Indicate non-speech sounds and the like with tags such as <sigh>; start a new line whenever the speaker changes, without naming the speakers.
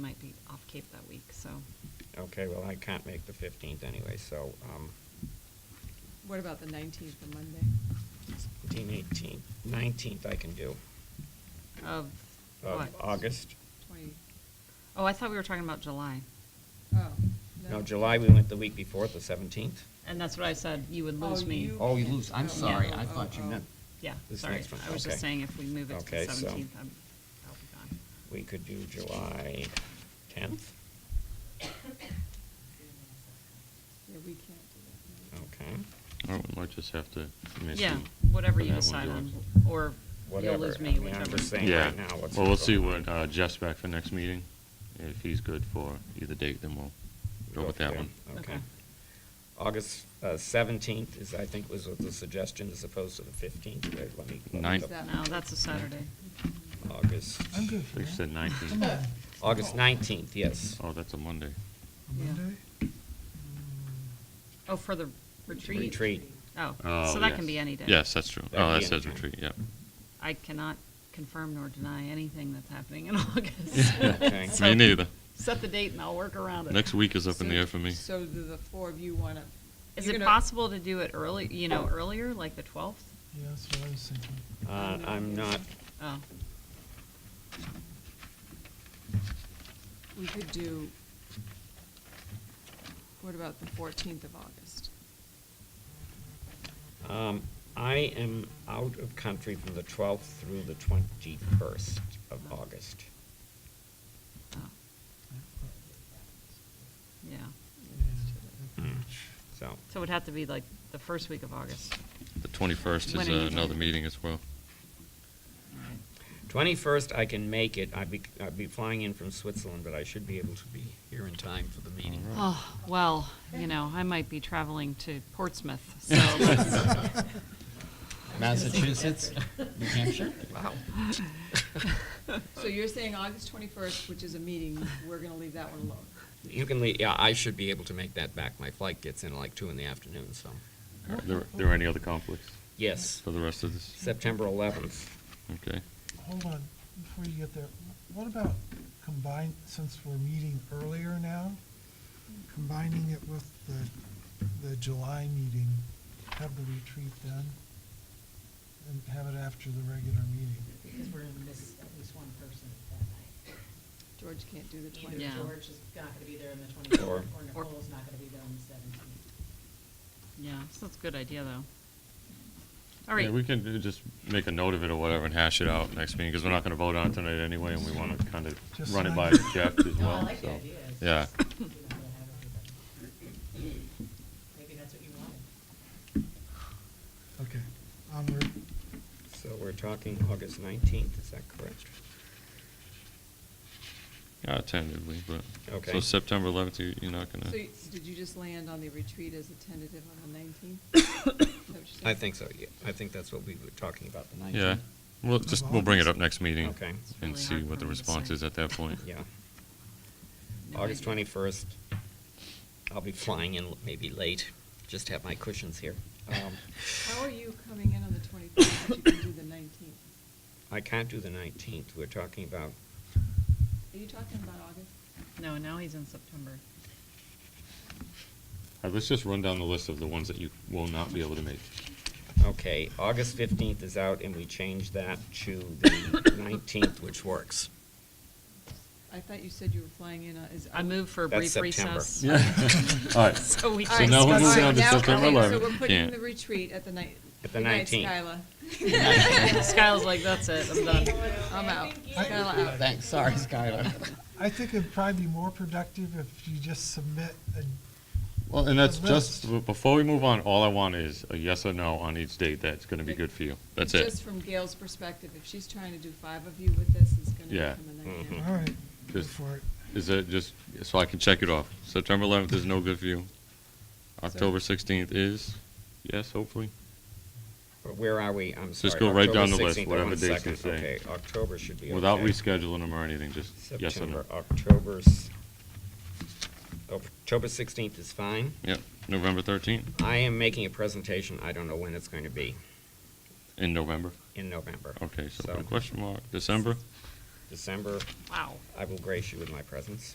might be off Cape that week, so.
Okay, well, I can't make the 15th anyway, so um,
What about the nineteenth, the Monday?
17, 18, 19th I can do.
Of
of
what?
August.
Twenty,
Oh, I thought we were talking about July.
oh.
No, July, we went the week before, the 17th.
And that's what I said, you would
Oh,
lose me.
you- Oh, you lose. I'm
sorry.
I thought you meant-
Yeah,
This
sorry.
next one,
I was just
okay.
saying if we move it to the
Okay, so-
17th, I'm, I'll be gone.
We could do July 10th.
Yeah, we can't do that. no.
Okay,
All right, we might just have to. miss
Yeah,
you
whatever
for
you
that one,
decide on,
George.
or you'll
whatever.
lose
I
me,
mean, I'm
whichever.
just saying
Yeah,
right now what's
well, we'll see
going on.
what uh, Jeff's back for next meeting. If he's good for either date, then we'll
Go
go with that
there.
one.
Okay.
Okay.
August uh, 17th is, I think, was what the suggestion as opposed to the 15th. Wait, let me- let me
Ninth.
double-
No, that's a Saturday.
August.
I'm good.
They said 19th.
August 19th, yes.
Oh, that's a Monday.
A
Yeah.
Monday?
Oh, for the retreat?
Retreat.
Oh,
Oh,
so that can
yes.
be any day.
Yes, that's true.
That'd
Oh, that
be
says
anytime.
retreat, yep.
I cannot confirm nor deny anything that's happening in <laughs>
<laughs>
August.
Okay.
So
Me neither.
Set the date and I'll work around it.
Next week is up in the
So-
air for me.
So do the four of you wanna?
Is
you're
it
gonna-
possible to do it early, you know, earlier, like the 12th?
Yeah, that's what I was thinking.
Uh, I'm not,
Oh,
We could do, what about the fourteenth of August?
um, I am out of country from the 12th through the 21st of August.
oh, yeah.
Hmm.
So,
So it would have to be like the first week of August.
The 21st
When
is
are you
uh, another
doing?
meeting as well.
Alright.
21st, I can make it. I'd be, I'd be flying in from Switzerland, but I should be able to be here in time for the meeting.
All right.
Oh, well, you know, I might be traveling to Portsmouth, so let's-
<laughs> Massachusetts, New Hampshire.
Wow.
So you're saying August twenty-first, which is a meeting, we're gonna leave that one alone?
You can leave, yeah, I should be able to make that back. My flight gets in at like two in the afternoon, so.
All right, There there are any other conflicts
Yes,
for the rest of this?
September 11th.
Okay.
<laughs> Hold on, before you get there, what about combine, since we're meeting earlier now, combining it with the, the July meeting, have the retreat then? And have it after the regular meeting?
Because we're gonna miss at least one person that night.
George can't do the twenty.
Yeah.
Either George is not gonna be there on the twenty-fourth,
Or-
or Nicole's not gonna be there on the seventeenth.
yeah, so that's a good idea, though. All
Yeah, we
right,
can uh, just make a note of it or whatever and hash it out next meeting, because we're not gonna vote on it tonight anyway, and we wanna kind
Just
of run it
like-
by Jeff
Oh,
as
No, I
well,
like the
so.
idea. It's
Yeah.
just, you know, to have everybody. Maybe that's what you wanted.
Okay, onward.
So we're talking August 19th, is that correct?
Yeah, tentatively, but,
Okay.
so September 11th, you- you're not gonna,
So y- did you just land on the retreat as a tentative on the nineteenth?
I think so, yeah. I think that's what we were talking about, the 19th.
yeah, we'll just, we'll bring it up next meeting.
Okay.
It's
And
really
see
hard
what the
for me to
response
say.
is at that point.
Yeah.
No
August
idea.
21st. I'll be flying in maybe late, just have my cushions here. Um,
How are you coming in on the twenty-first, but you can do the nineteenth?
I can't do the 19th. We're talking about,
Are you talking about August?
no, now he's in September.
All right, let's just run down the list of the ones that you will not be able to make.
okay, August 15th is out, and we changed that to the <coughs> 19th, which works.
I thought you said you were flying in, on- is.
I move for a
That's
brief
September.
recess.
<laughs> Yeah. <laughs>
<laughs>
All right.
<laughs> So we
All
So
right,
can
now we're
all
discuss-
moving
right,
on to
now-
September
okay,
11th.
So we're
Yeah.
putting the retreat at the night.
At the
good night,
19th.
<laughs>
Skylar.
Skyla's like, that's it, I'm done.
I'm out.
I-
Skylar out.
Thanks, sorry, Skylar.
I think it'd probably be more productive if you just submit a,
Well, and that's
The
just, before we move on, all I want is a yes or no on each date that's gonna be good for you. That's
Just
it.
from Gail's perspective, if she's trying to do five of you with this, it's gonna
Yeah.
become a nightmare.
Mm-hmm. all right, go
Just-
for it.
Is it just, so I can check it off. September 11th is no good for you. October 16th is, yes, hopefully.
But Where are we? I'm sorry.
Just go right
October
down the list,
16th,
whatever
one
dates
second.
you say.
Okay, October should be okay.
Without rescheduling them or anything, just yes or no.
September, October's, October 16th is fine.
Yep, November 13th
I am making a presentation, I don't know when it's going to be,
in November.
in November.
Okay, so put a question mark. December?
December,
Wow.
I will grace you with my presence.